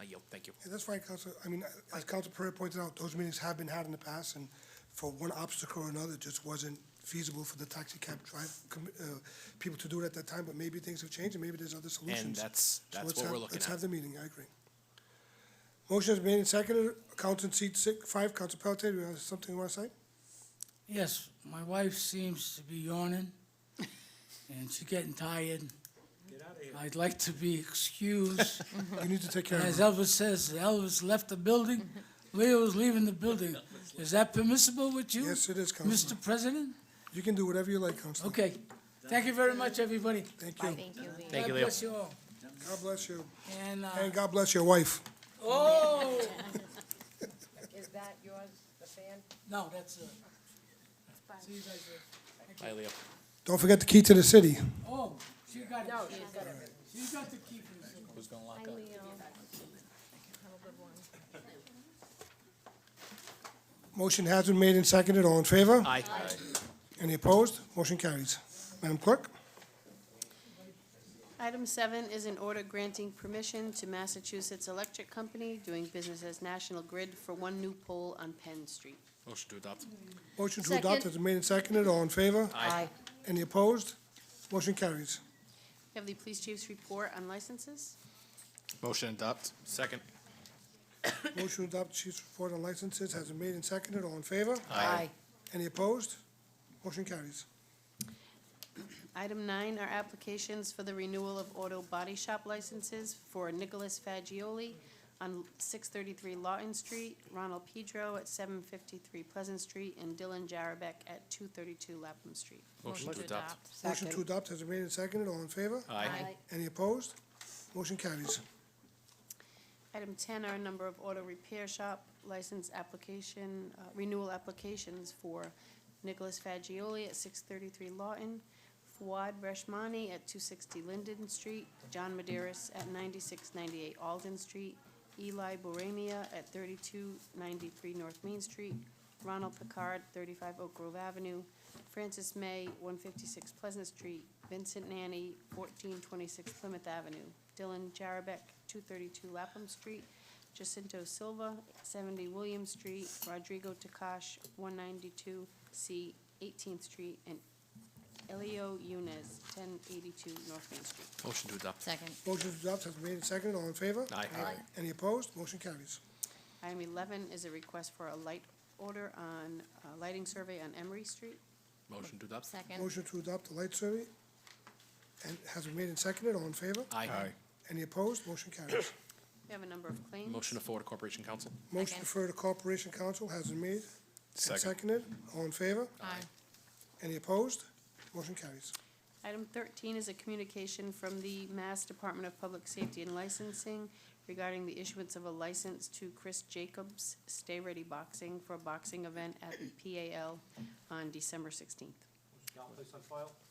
I yield. Thank you. Yeah, that's right, Council. I mean, as Council Pereira pointed out, those meetings have been had in the past, and for one obstacle or another, it just wasn't feasible for the taxi cab drive, com- uh, people to do it at that time, but maybe things have changed, and maybe there's other solutions. And that's, So that's let's what we're have- looking Let's have at. the meeting, I agree. Motion is made and seconded, Council in seat six, five, Council Pelletier, do you have something you want to say? Yes, my wife seems to be yawning, and she's getting tired. I'd like to be excused. You need to take care of As her. Elvis says, Elvis left the building, Leo is leaving the building. Is that permissible with you? Yes, it is, Council. Mr. President? You can do whatever you like, Council. Okay. Thank you very much, everybody. Thank you. Thank you, Lee. Thank you, God Leo. bless you all. God bless you, And, uh, and God bless your wife. oh, Is that yours, the fan? no, that's, uh, see you guys later. Bye, Leo. Don't forget the key to the city. Oh, she got No, it. she's got it. She got the key. for this. Who's gonna lock Hi, up? Leo. Have a good one. Motion has been made and seconded, all in favor? Aye. Any opposed? Motion carries. Madam Clerk? Item seven is an order granting permission to Massachusetts Electric Company doing business as National Grid for one new pole on Penn Street. Motion to adopt. Motion to adopt Second. has been made and seconded, all in favor? Aye. Any opposed? Motion carries. We have the police chief's report on licenses. Motion to adopt. Second. Motion to adopt chief's report on licenses has been made and seconded, all in favor? Aye. Any opposed? Motion carries. Item nine are applications for the renewal of auto body shop licenses for Nicholas Fagioli on six thirty-three Lawton Street, Ronald Pedro at seven fifty-three Pleasant Street, and Dylan Jarabek at two thirty-two Lapham Street. Motion to adopt. Motion to adopt has been made and seconded, all in favor? Aye. Any opposed? Motion carries. Item ten are a number of auto repair shop license application, uh, renewal applications for Nicholas Fagioli at six thirty-three Lawton, Fuad Reshmani at two sixty Linden Street, John Maderis at ninety-six ninety-eight Alden Street, Eli Boramia at thirty-two ninety-three North Main Street, Ronald Picard, thirty-five Oak Grove Avenue, Francis May, one fifty-six Pleasant Street, Vincent Nanny, fourteen twenty-six Plymouth Avenue, Dylan Jarabek, two thirty-two Lapham Street, Jacinto Silva, seventy William Street, Rodrigo Takash, one ninety-two C Eighteenth Street, and Elio Yunez, ten eighty-two North Main Street. Motion to adopt. Second. Motion to adopt has been made and seconded, all in favor? Aye. Aye. Any opposed? Motion carries. Item eleven is a request for a light order on, uh, lighting survey on Emery Street. Motion to adopt. Second. Motion to adopt the light survey and has been made and seconded, all in favor? Aye. Any opposed? Motion carries. We have a number of claims. Motion to forward to Corporation Council. Motion to refer to Corporation Council has been made and seconded. All in favor? Aye. Any opposed? Motion carries. Item thirteen is a communication from the Mass Department of Public Safety and Licensing regarding the issuance of a license to Chris Jacobs Stay Ready Boxing for a boxing event at the PAL on December sixteenth.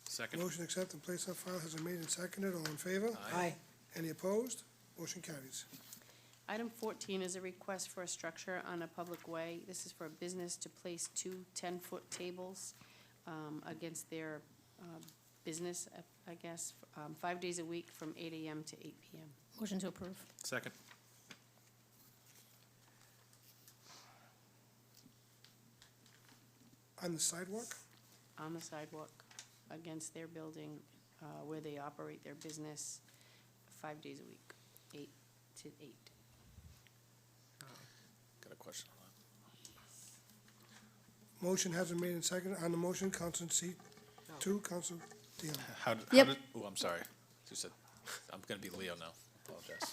Second. Motion accept and place on file has been made and seconded. All in favor? Aye. Any opposed? Motion carries. Item fourteen is a request for a structure on a public way. This is for a business to place two ten-foot tables um, against their um, business, uh, I guess, um, five days a week from eight AM to eight PM. Motion to approve. Second. On the sidewalk? on the sidewalk against their building, uh, where they operate their business five days a week, eight to eight. Got a question. Motion has been made and seconded. On the motion, Council seat two, Council Dion. How, did- how Yep. did, oh, I'm sorry. You said, I'm gonna be Leo now. Apologize.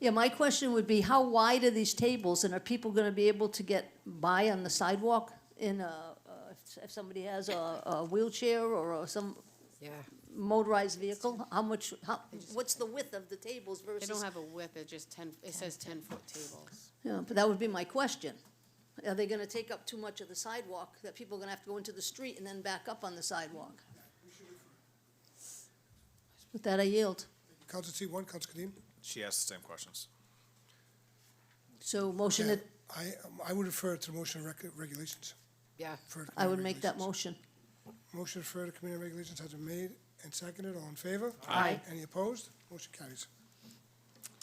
Yeah, my question would be, how wide are these tables, and are people gonna be able to get by on the sidewalk in a, a- if somebody has a a wheelchair or a- some Yeah, motorized vehicle? How much, how, what's the width of the tables They versus? don't have a width, they're just ten, it says ten-foot tables. Yeah, but that would be my question. Are they gonna take up too much of the sidewalk, that people are gonna have to go into the street and then back up on the sidewalk? With that, I yield. Council seat one, Council Kadim. She asked the same questions. So motion that, I, I would refer to the motion of rec- regulations. yeah. Refer to I would committee make that regulations. motion. Motion to refer to committee regulations has been made and seconded. All in favor? Aye. Any opposed? Motion carries.